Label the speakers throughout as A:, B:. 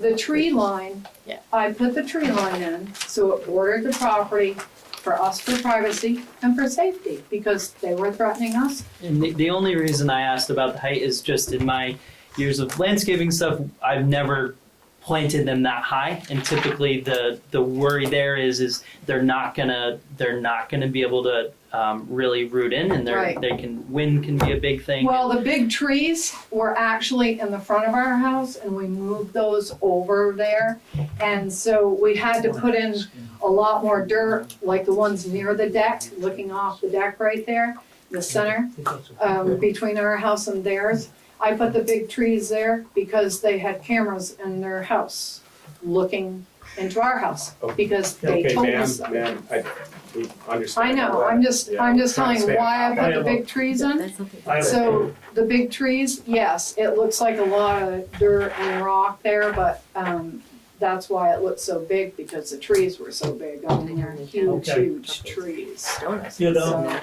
A: the tree line.
B: Yeah.
A: I put the tree line in, so it bordered the property for us for privacy and for safety, because they were threatening us.
C: And the, the only reason I asked about the height is just in my years of landscaping stuff, I've never planted them that high. And typically, the the worry there is is they're not gonna they're not gonna be able to um, really root in, and they're
A: Right.
C: they can wind can be a big thing.
A: Well, the big trees were actually in the front of our house, and we moved those over there. And so we had to put in a lot more dirt, like the ones near the deck, looking off the deck right there, the center. um, between our house and theirs. I put the big trees there because they had cameras in their house looking into our house
D: Oh.
A: because they
D: Okay,
A: told
D: ma'am,
A: us.
D: ma'am, I, we understand.
A: I know,
D: all
A: I'm
D: that.
A: just,
D: Yeah,
A: I'm just
D: trying
A: telling
D: to
A: you
D: stay
A: why I
D: on
A: put the
D: top.
A: big trees in.
B: That's okay.
E: I have a-
A: So the big trees, yes, it looks like a lot of dirt and rock there, but, um, that's why it looked so big because the trees were so big on there, huge,
E: Okay.
A: huge trees.
B: Donuts.
E: You know,
A: So,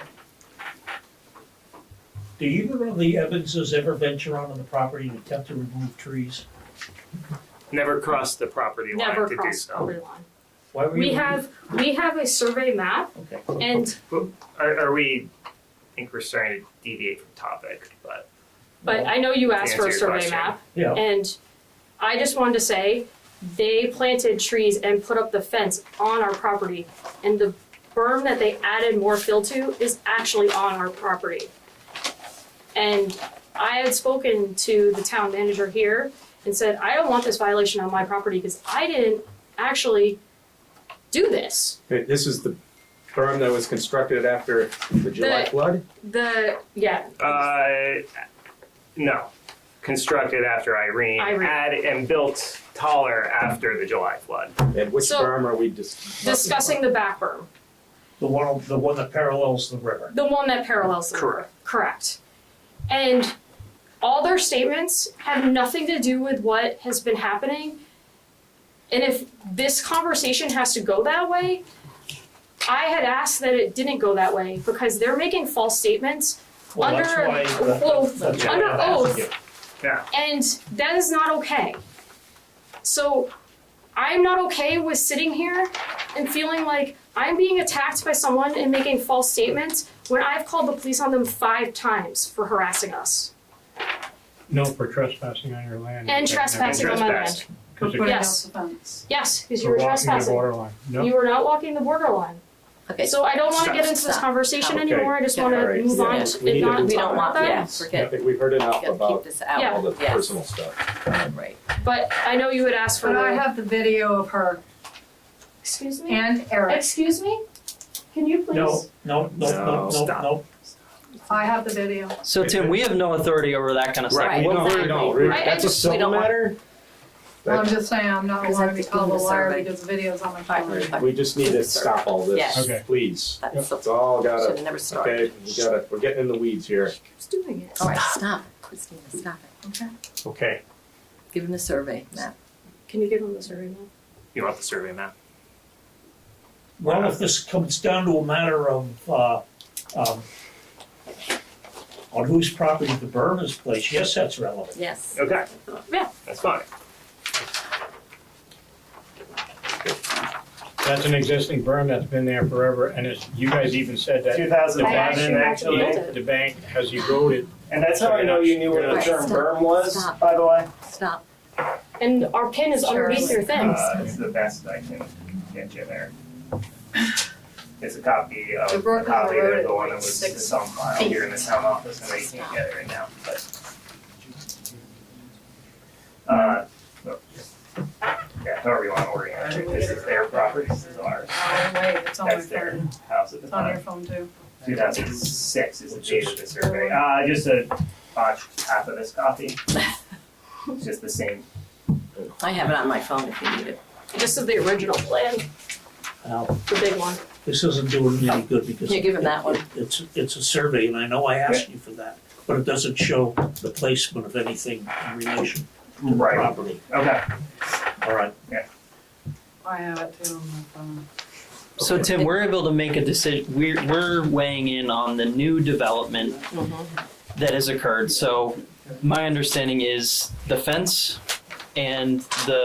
E: do either of the Evanses ever venture out on the property to attempt to remove trees?
F: Never crossed the property line
G: never
F: to do
G: cross
F: so.
G: property line.
E: Why were you?
G: We have, we have a survey map
E: Okay.
G: and,
F: Are, are we, I think we're starting to deviate from topic, but
G: but I know you asked for a
F: answer your
G: survey
F: question.
G: map.
E: Yeah.
G: And I just wanted to say, they planted trees and put up the fence on our property. And the berm that they added more fill to is actually on our property. And I had spoken to the town manager here and said, I don't want this violation on my property because I didn't actually do this.
D: Okay, This is the berm that was constructed after the July
G: The-
D: flood?
G: The, yeah,
F: uh, no. Constructed after Irene,
G: Irene.
F: add and built taller after the July flood.
D: And which
G: So-
D: berm are we dis-
G: discussing the back berm,
E: The one, the one that parallels the river.
G: the one that parallels the river. Correct. And all their statements have nothing to do with what has been happening. And if this conversation has to go that way, I had asked that it didn't go that way because they're making false statements
E: Well, that's
G: Under
E: why the-
G: oath-
E: that's why
G: under
E: I'm asking
G: oath.
E: you.
G: and that is not okay. So I'm not okay with sitting here and feeling like I'm being attacked by someone and making false statements when I've called the police on them five times for harassing us
H: No, for trespassing on your land.
G: and trespassing on my land.
F: Trespass.
A: For
H: Because
A: putting
H: it-
A: out
G: Yes.
A: the fence.
G: Yes, because you
H: for
G: were
H: walking the
G: trespassing.
H: borderline. No,
G: You were not walking the border line.
B: Okay, so
G: So I don't wanna
F: Stop,
G: get into this
B: stop.
G: conversation
D: Okay.
G: anymore, I just
B: Yeah,
D: all
G: wanna
D: right,
G: move
D: yeah.
G: on
D: We
G: to-
D: need
G: and
D: to
G: not
B: we
D: move
G: talk
B: don't
G: about
B: want,
G: that.
B: yeah,
D: I
B: forget,
D: think we've heard enough
B: gotta keep
D: about
B: this out.
G: Yeah.
D: all the
B: Yes.
D: personal stuff.
B: Right.
G: But I know you had asked for
A: But I
G: the,
A: have the video of her
G: excuse me?
A: and Eric.
G: Excuse me? Can you please?
E: No, no, no, no,
D: No,
E: no,
F: stop.
E: no.
A: I have the video.
C: so Tim, we have no authority over that kind of stuff.
B: Right.
C: What
D: No, we
B: exactly.
D: don't. We-
G: I- I
D: That's a
B: just- we
D: civil
B: don't want-
D: matter.
A: I'm
D: That-
A: just saying, I'm not
B: Because I
A: wanting to
B: think we
A: call
B: need
A: the
B: to
A: liar
B: survey.
A: because the video's on my phone.
D: We just need to stop all
B: Yes.
D: this,
H: Okay.
D: please.
B: That's
D: It's all
B: should have
D: gotta,
B: never started.
D: okay, we gotta, we're getting in the weeds here.
G: Who's doing it?
B: All right, stop, Christina, stop it.
F: Okay,
B: Give him the survey, Matt.
G: Can you give him the survey map?
F: you want the survey map?
E: Well, if this comes down to a matter of, uh, um, on whose property the berm is placed, yes, that's relevant.
B: Yes.
F: Okay.
G: Yeah.
F: That's fine.
H: that's an existing berm that's been there forever, and it's, you guys even said that
F: Two thousand
H: I
F: eleven,
H: actually
F: actually.
G: built it.
H: the bank has eroded.
F: And that's how I know you knew where the
B: Right,
F: term
B: stop,
F: berm was,
B: stop.
F: by the way.
B: Stop.
G: And our pin is underneath your things.
F: Uh, it's the best I can get you there. It's a copy of,
A: The
F: a
A: Brooklyn
F: copy
A: wrote
F: of
A: it
F: the one that was
A: six
F: it's on file here in the town office, and I can't get it right now, but. Uh, no. yeah, however you wanna orient it, this is their property, this is ours,
A: Oh, wait, it's on my
F: that's their
A: phone.
F: house at the
A: It's on your
F: time.
A: phone too.
F: Two thousand six is the date of the survey, uh, just a botched half of this copy. It's just the same
B: I have it on my phone if you need it.
G: This is the original plan,
E: Now,
G: the big one.
E: this isn't doing me any good because.
B: Yeah, give him that one.
E: It's, it's a survey and I know I asked you for that, but it doesn't show the placement of anything in relation to the
F: Right.
E: property.
F: Okay.
E: All right,
A: I have it too on my phone.
C: So Tim, we're able to make a decision. We're we're weighing in on the new development
A: Mm-hmm.
C: that has occurred. So my understanding is the fence and the